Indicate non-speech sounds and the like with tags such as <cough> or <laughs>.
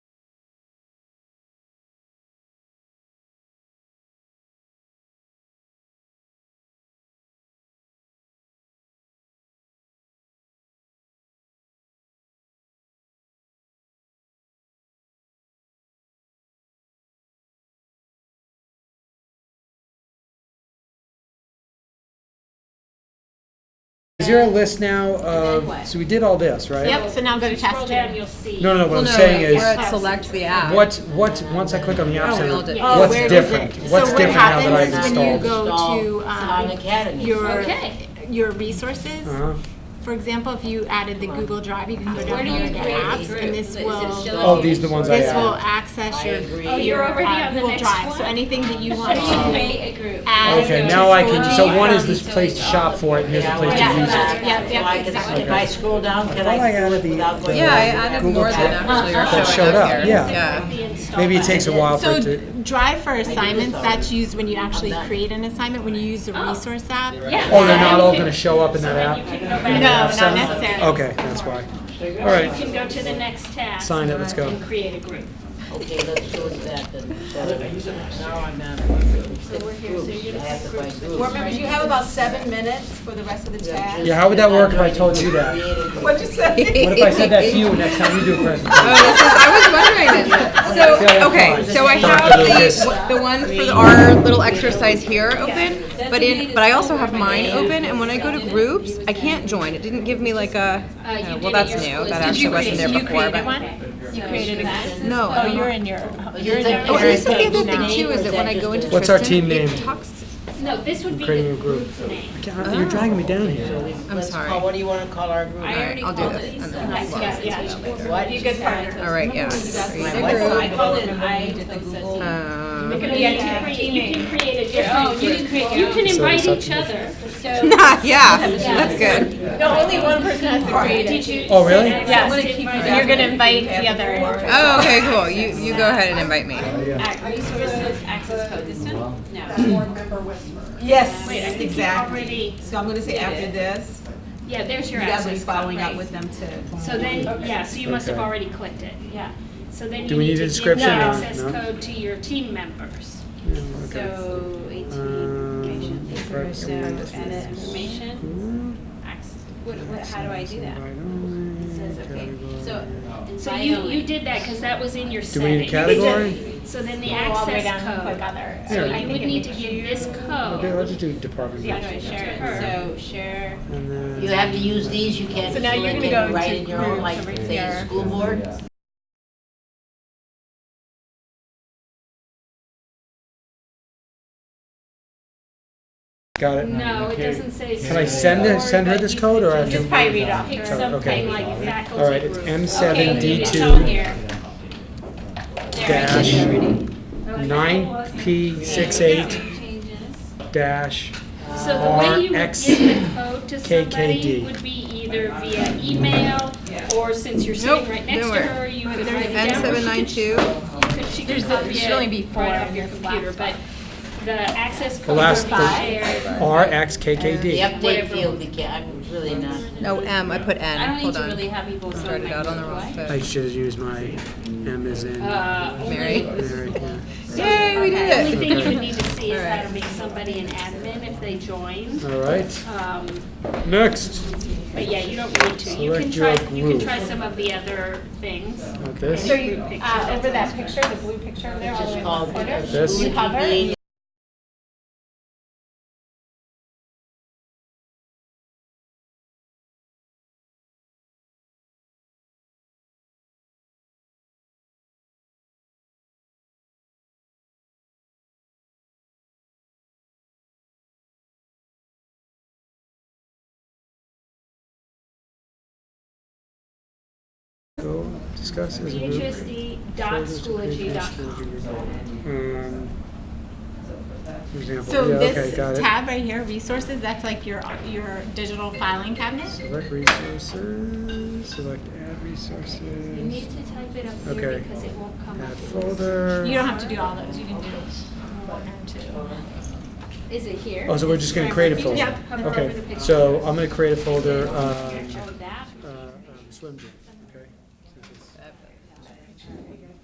Is there a list now of, what? so we did all this, right? Yep, so now go to Scroll down, testing. you'll see. No, no, no, what Well, I'm no, saying we're is, at select the app. what's, what's, once I click on the app Oh, we center, all did. Oh, what's where does different? it- What's different now that I've So what happens installed? is when you go to, Salon um, Academy. your, Okay. your resources, Uh-huh. for example, if you added the Google Drive, you can go Where down do to you the create apps, these and this groups? Is it still will, on Oh, these are the ones I this will added. access your. Oh, your, you're uh, already on the Google next Drive. So one? anything that <laughs> you So want you to create a group. add. Okay, to now I can, storage. so one is this place to shop for it, and here's the place to use it. Yeah, yep, yep, Like, exactly. If I scroll down, can thought I I scroll added it the- without going? the- Yeah, I over? added more than actually Drive. are That showed showing up, up here. yeah. The install Maybe it button. takes a while for it to, So Drive for this assignments, already. Oh. that's used when you actually create an assignment, when you use the resource app. Yeah. oh, they're not And all you gonna can- show up in that You app? can go No, back, not Sound- necessarily. Okay, that's why. All you right, can go to the next tab. Sign it, let's go. And create a group. Okay, let's go with that then. Now I'm not. So we're here, so you're gonna have to find Board groups. members, you have about seven minutes for the rest of the task. yeah, how would that work if I told you that? What'd you <laughs> say? What if I said that to you next time you do a presentation? Oh, this is, I was wondering <laughs> this. So, okay, so I have the, the one for our little exercise here open, but in, but I also have mine open, and when I go to groups, I can't join. It didn't give me like a, oh, well, that's new, that actually wasn't there before, but. You created a group. No. Oh, you're in your, you're in Oh, and your. this is the other thing too, is that when I go into What's our Tristan, team it name? talks- No, this would be Creating a the group. group's name. God, You're dragging me down here. I'm sorry. What do you wanna call our group? I already I'll do called this, it. and then I- we'll yeah, yeah. Would be a good partner. All right, yeah. Create <laughs> a What's group. my Call group? it, I did the Google. Um, You can create, you can create a different group. You can So it's invite up each to you. other, <laughs> so. Yeah, that's good. No, only one person has to create Did you? Oh, really? Yes, so you're gonna invite the other. Oh, okay, cool. You, you go ahead and invite me. Resources access code, this one? No. Yes, Wait, I think you exactly. already, So I'm gonna say after this, yeah, there's you your guys will be access code, following up right. with them too. So then, yeah, so you must have Okay. already clicked it, yeah. So then Do you we need need a to give the description or access no? code to your team members. So Um, eighteen, information, these are so edit information, access, what, what, how do I do that? It says, okay, so, so you, you did that, cause that was in your Do setting. we need a category? So then the all the way down access and click code, other. so Yeah. you would need to give this code. Okay, let's just do department. Yeah, heads. share it, so share. And then- You have to use these, you can't So now you're select gonna go it right to in your own, groups like, over say, here. school board. Got it. No, it doesn't say. Can I send it, it, send her this code or I have Just to? probably read off. Pick Okay. something like All right, faculty it's group. M seven Okay, D it's on two here. There, I dash did it. Okay. nine P six eight Changes. dash So the way you would give the code to somebody RXKKD. would be either via email, or since you're sitting Nope, right next to nowhere. her, you could write it down. N seven nine two. Could she could copy should only be it four right off on your this computer, but the access code last- would be the- shared. R X K K The D. update field, we can't, I'm really not. No, M, I put N. I don't need Hold to really on. have people sign Started my out on the book, wrong right? I foot. should have used my M as in Uh, only- Mary. Mary. Yay, we Only did it. thing you would need to see is All how right. to make somebody an admin if they join. All right, Um, next. But yeah, you don't need to. You can Select try, your you can group. try some of the other things. Not this. So you, uh, That's over that picture, the blue picture over there, all the way in called the corner, This. you hover, and you Go discuss as a group. phsd.schoology.com. Um, Example, So yeah, okay, this got it. tab right here, resources, that's like your, your digital filing cabinet. Select resources, select add You need resources, to type it up here Okay. because it won't come add up. You folder. don't have to do all those, you can do one or two. Is it here? Oh, so we're just gonna create a folder? Yep. Oh, Okay, so I'm gonna create a folder, uh, uh, um, swim gym.